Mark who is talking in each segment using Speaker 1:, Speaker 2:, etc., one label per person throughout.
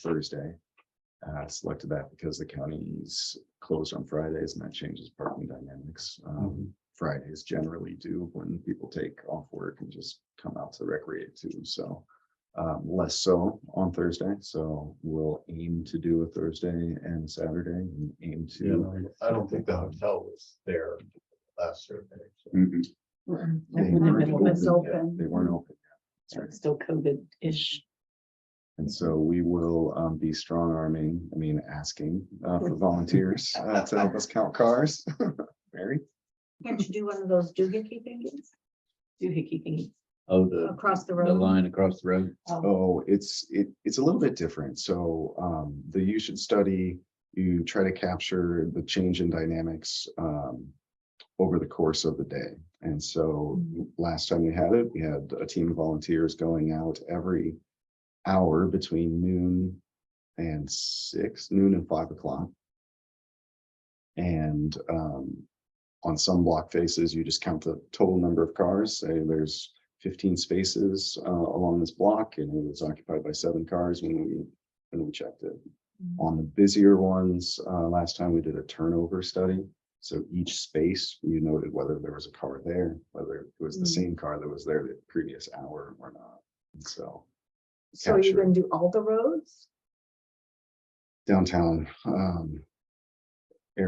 Speaker 1: Thursday. Uh, selected that because the county's closed on Fridays and that changes parking dynamics.
Speaker 2: Mm-hmm.
Speaker 1: Um, Fridays generally do when people take off work and just come out to recreate too, so. Um, less so on Thursday, so we'll aim to do a Thursday and Saturday and aim to.
Speaker 2: I don't think the hotel was there last survey. so.
Speaker 1: Mhm. They
Speaker 3: When the
Speaker 1: weren't
Speaker 3: middle is
Speaker 1: open yet.
Speaker 3: open.
Speaker 1: They weren't open. yet. That's right.
Speaker 3: It's Still COVID-ish.
Speaker 1: And so we will um be strong arming, I mean, asking uh for volunteers uh, to help us count cars. Mary,
Speaker 4: Can't you do one of those doohickey things
Speaker 3: Doohickey thingy.
Speaker 2: Oh, the,
Speaker 4: across the
Speaker 2: the
Speaker 4: road?
Speaker 2: line across the road.
Speaker 4: Um,
Speaker 1: oh, it's it it's a little bit different. So um the you should study, you try to capture the change in dynamics um over the course of the day. And so last time we had it, we had a team of volunteers going out every hour between noon and six, noon and five o'clock. And um, on some block faces, you just count the total number of cars, say there's fifteen spaces uh, along this block and it was occupied by seven cars when we, when we checked it. On the busier ones, uh, last time we did a turnover study. So each space, you noted whether there was a car there, whether it was the
Speaker 4: Mm.
Speaker 3: Mm-hmm.
Speaker 1: same car that was there the previous hour or not. And So
Speaker 4: So are you
Speaker 1: capture.
Speaker 4: gonna do all the roads?
Speaker 1: downtown um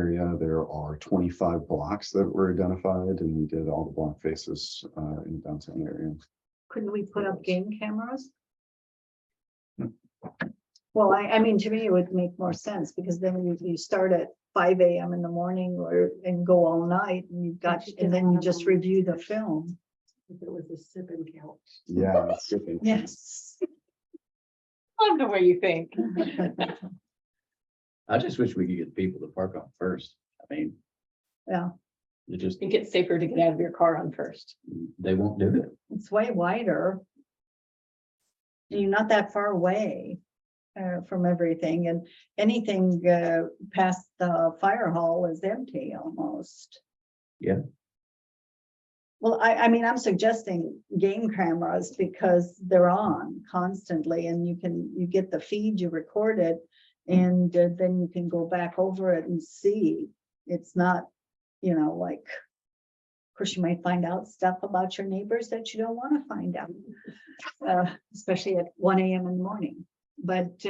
Speaker 1: area, there are twenty-five blocks that were identified and we did all the block faces uh in the downtown area.
Speaker 4: Couldn't we put up game cameras?
Speaker 1: Hmm.
Speaker 4: Well, I, I mean, to me, it would make more sense because then you, you start at five AM in the morning or, and go all night and you've got,
Speaker 3: But you
Speaker 4: and
Speaker 3: did
Speaker 4: then you
Speaker 3: have
Speaker 4: just
Speaker 3: one.
Speaker 4: review the film.
Speaker 3: If it was a sip and count.
Speaker 1: Yeah. that's different.
Speaker 4: Yes.
Speaker 3: Love the way you think.
Speaker 2: I just wish we could get people to park on first. I mean.
Speaker 4: Yeah.
Speaker 2: They just,
Speaker 3: Think it's safer to get out of your car on first.
Speaker 2: they won't do it.
Speaker 4: It's way wider. And You're not that far away uh, from everything and anything uh, past the fire hall is empty almost.
Speaker 2: Yeah.
Speaker 4: Well, I, I mean, I'm suggesting game cameras because they're on constantly and you can, you get the feed, you record it. And uh, then you can go back over it and see. It's not, you know, like of course, you might find out stuff about your neighbors that you don't want to find out, uh, especially at one AM in the morning. But, uh,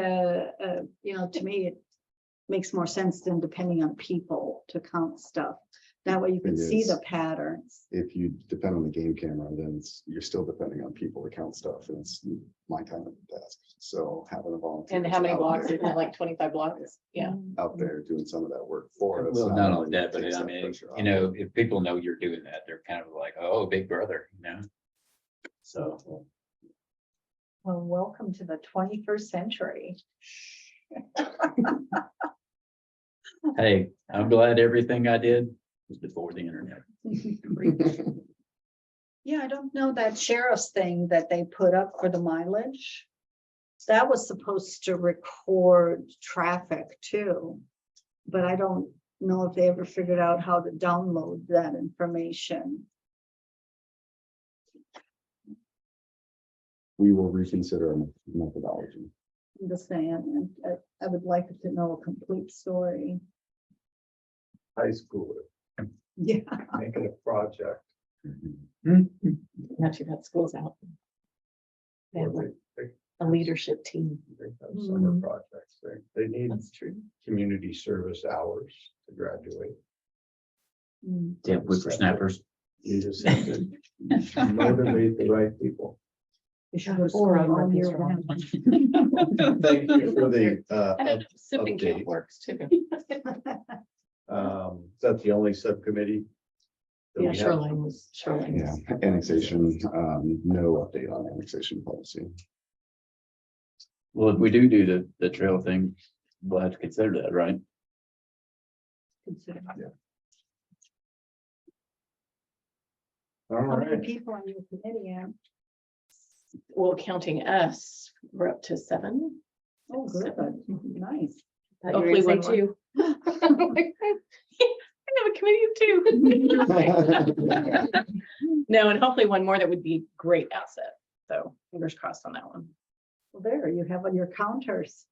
Speaker 4: uh, you know, to me, it makes more sense than depending on people to count stuff. That way you can
Speaker 1: It
Speaker 4: see
Speaker 1: is.
Speaker 4: the patterns.
Speaker 1: If you depend on the game camera, then it's, you're still depending on people to count stuff and it's my time at the desk. So having a volunteer.
Speaker 3: And how many
Speaker 1: out
Speaker 3: blocks?
Speaker 1: there-
Speaker 3: Isn't it like twenty-five blocks? Yeah.
Speaker 4: Mm,
Speaker 1: Out there doing some of that work for us.
Speaker 2: Well, not only
Speaker 1: only
Speaker 2: that, but
Speaker 1: takes
Speaker 2: I
Speaker 1: that
Speaker 2: mean,
Speaker 1: pressure
Speaker 2: you
Speaker 1: off.
Speaker 2: know, if people know you're doing that, they're kind of like, oh, big brother, you know? So.
Speaker 4: Well, welcome to the twenty-first century.
Speaker 2: Hey, I'm glad everything I did was before the internet.
Speaker 4: Yeah, I don't know that sheriff's thing that they put up for the mileage. That was supposed to record traffic too. But I don't know if they ever figured out how to download that information.
Speaker 1: We will reconsider our methodology.
Speaker 4: I'm just saying, and I, I would like to know a complete story.
Speaker 5: high schooler
Speaker 4: Yeah.
Speaker 5: making a project
Speaker 2: Mhm.
Speaker 3: Not too bad. School's out. They have
Speaker 5: or
Speaker 3: like
Speaker 5: they, they,
Speaker 3: a leadership team.
Speaker 5: they have summer
Speaker 4: Mhm.
Speaker 5: projects. They, they need
Speaker 3: That's true.
Speaker 5: community service hours to graduate.
Speaker 4: Mm.
Speaker 2: Yeah, whippersnappers.
Speaker 5: You just have to motivate the right people.
Speaker 4: They should go
Speaker 3: Or
Speaker 4: school all
Speaker 3: I'm
Speaker 4: year
Speaker 3: wrong.
Speaker 4: round.
Speaker 5: Thank you for the, uh,
Speaker 3: I don't know. Sip and count
Speaker 5: Update.
Speaker 3: works too.
Speaker 5: um, is that the only subcommittee? that we
Speaker 3: Yeah,
Speaker 5: have?
Speaker 3: shoreline was, shoreline.
Speaker 1: Yeah,
Speaker 3: was-
Speaker 1: annexation, um, no update on annexation policy.
Speaker 2: Well, if we do do the, the trail thing, we'll have to consider that, right?
Speaker 4: Consider.
Speaker 5: All
Speaker 4: How many
Speaker 5: right,
Speaker 4: people on your committee? Ann?
Speaker 3: Well, counting us, we're up to seven.
Speaker 4: Oh, good, nice.
Speaker 3: Hopefully we're two. I have a committee of two. No, and hopefully one more that would be great asset. So fingers crossed on that one.
Speaker 4: Well, There, you have on your counters.